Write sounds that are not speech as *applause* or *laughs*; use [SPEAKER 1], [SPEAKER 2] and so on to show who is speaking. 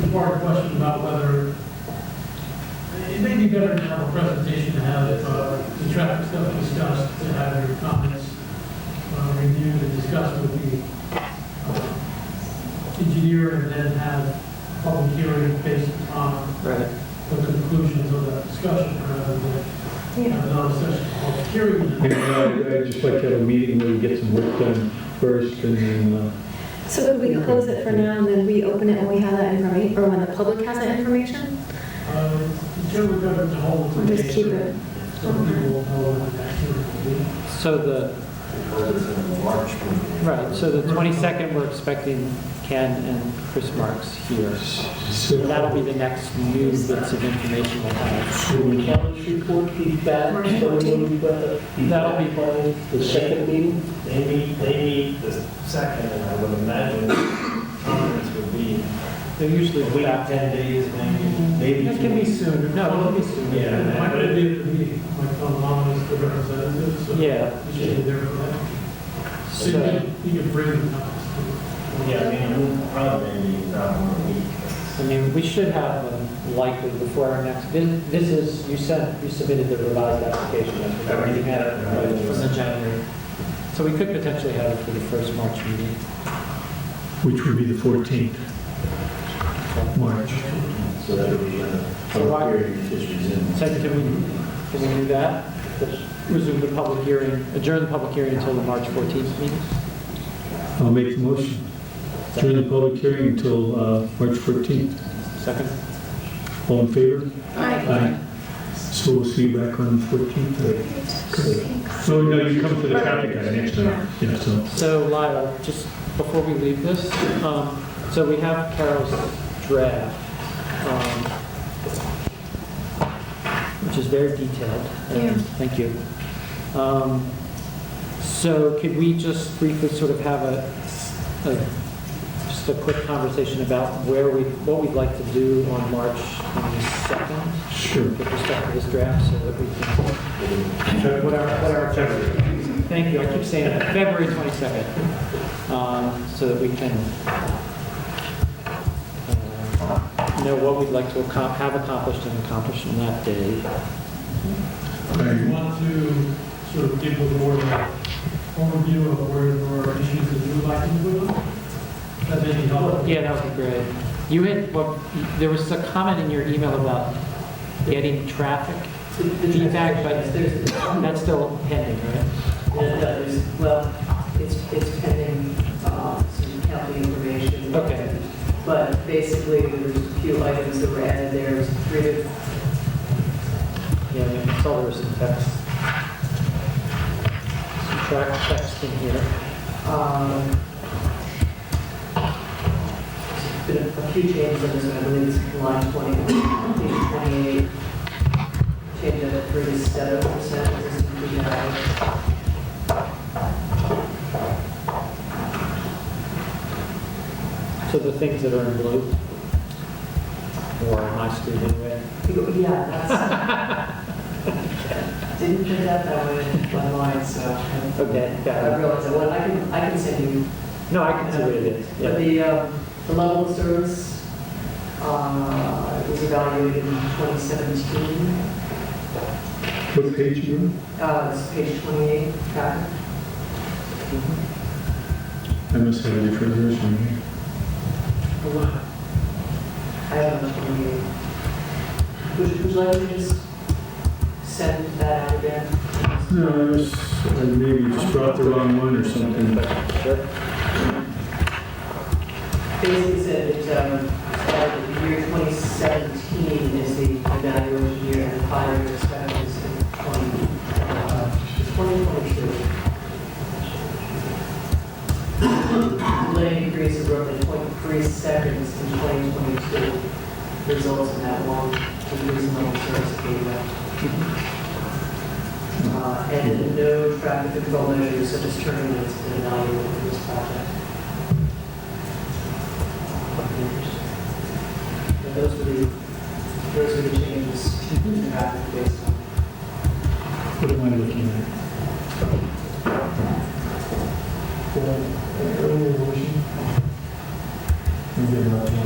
[SPEAKER 1] two-part question about whether, it may be better to have a presentation to have uh, the traffic stuff discussed, to have your comments uh, reviewed and discussed with the uh, engineer, and then have a public hearing based on
[SPEAKER 2] Right.
[SPEAKER 1] the conclusions of that discussion, rather than have another session, of public hearing. and
[SPEAKER 3] And
[SPEAKER 1] then-
[SPEAKER 3] uh, I'd just like to have a meeting where we get some work done first and then, uh,
[SPEAKER 4] So could we close it for now, and then we open it when we have that information, or when the public has that information?
[SPEAKER 1] Uh, Until we go to the whole.
[SPEAKER 4] We'll just keep it.
[SPEAKER 1] So people will know what that hearing will be.
[SPEAKER 2] So the, right, so the 22nd, we're expecting Ken and Chris Marks here.
[SPEAKER 3] uh,
[SPEAKER 2] So that'll be the next new bits of information we'll have.
[SPEAKER 5] Will the challenge report be back,
[SPEAKER 4] Right.
[SPEAKER 5] so we'll be back.
[SPEAKER 2] That'll be
[SPEAKER 5] by the second meeting?
[SPEAKER 6] They meet, they meet the second, and I would imagine conference would be
[SPEAKER 2] They're usually
[SPEAKER 6] a week,
[SPEAKER 2] back.
[SPEAKER 6] 10 days, maybe,
[SPEAKER 2] It
[SPEAKER 6] maybe.
[SPEAKER 2] can be
[SPEAKER 6] two.
[SPEAKER 2] sooner, no, it'll be sooner.
[SPEAKER 6] Yeah.
[SPEAKER 1] And Why would it be at the meeting? Like, Tom Long is the representative, so.
[SPEAKER 2] Yeah.
[SPEAKER 1] You should be there for that. So you
[SPEAKER 2] So,
[SPEAKER 1] can- you can bring the comments to.
[SPEAKER 6] Yeah, I mean, it'll probably be not more than a week.
[SPEAKER 2] I mean, we should have them likely before our next, this this is, you sent, you submitted the revised application, that's what everything had right, from the January. So we could potentially have it for the first March meeting.
[SPEAKER 3] which would be the 14th, March.
[SPEAKER 6] So that would be, uh,
[SPEAKER 2] So why-
[SPEAKER 6] issues in.
[SPEAKER 2] So can we, can we do that? Just Resume the public hearing, adjourn the public hearing until the March 14th meeting?
[SPEAKER 3] I'll make the motion. During the public hearing until uh, March 14th.
[SPEAKER 2] Second?
[SPEAKER 3] All in favor?
[SPEAKER 4] Right.
[SPEAKER 3] Aye. So we'll see you back on the 14th. So no, you come for the traffic guy next time. Yeah, so.
[SPEAKER 2] So Lila, just before we leave this, um, so we have Carol's draft, um, which is very detailed. and
[SPEAKER 4] Yeah.
[SPEAKER 2] Thank you. Um, So could we just briefly sort of have a, a- just a quick conversation about where we, what we'd like to do on March 22nd?
[SPEAKER 3] Sure.
[SPEAKER 2] with respect to this draft, so that we can, what our, what our objective is. Thank you, I keep saying that, February 22nd, um, so that we can uh, know what we'd like to accom- have accomplished and accomplished on that day.
[SPEAKER 1] If you want to sort of give the board an overview of where there are issues that you would like to move on, that may be helpful.
[SPEAKER 2] Yeah, that would be great. You had, well, there was a comment in your email about getting traffic feedback, but
[SPEAKER 5] There's-
[SPEAKER 2] that's still pending, right?
[SPEAKER 5] And others, well, it's, it's pending uh, some county information.
[SPEAKER 2] Okay.
[SPEAKER 5] But basically, there's a few items that were added there, There's three to
[SPEAKER 2] Yeah, I mean, I saw there was some text. Some track text in here.
[SPEAKER 5] Um, Been a a few changes on this, one. I believe it's line 20, page 28, change of 37 percent, this is the, uh,
[SPEAKER 2] So the things that are in blue, or in my screen anyway.
[SPEAKER 5] yeah,
[SPEAKER 2] *laughs*
[SPEAKER 5] that's, didn't print out that way online, so. I-
[SPEAKER 2] Okay, got it.
[SPEAKER 5] I realize, that. well, I can, I can send you,
[SPEAKER 2] No, I can see what it is.
[SPEAKER 5] but
[SPEAKER 2] Yeah.
[SPEAKER 5] the, uh, the level of service uh, was evaluated in 2017,
[SPEAKER 3] What page are you on?
[SPEAKER 5] uh, it's page 28, got it?
[SPEAKER 3] I must have a different version here.
[SPEAKER 5] Oh, I don't know from you. Would you like to just send that out again?
[SPEAKER 3] No, I was, I maybe just brought the wrong one or something.
[SPEAKER 2] Sure.
[SPEAKER 5] Basically said that, um, that the year 2017 is the evaluation year and the five year expected is in 20, uh, 2022. Lane increase of roughly 0.3 seconds in 2022 results in that long decrease in level of service data. Uh, and no traffic control measures such as turning lanes have been evaluated for this project. And those would be, those would be changes in traffic based
[SPEAKER 3] um né? Então,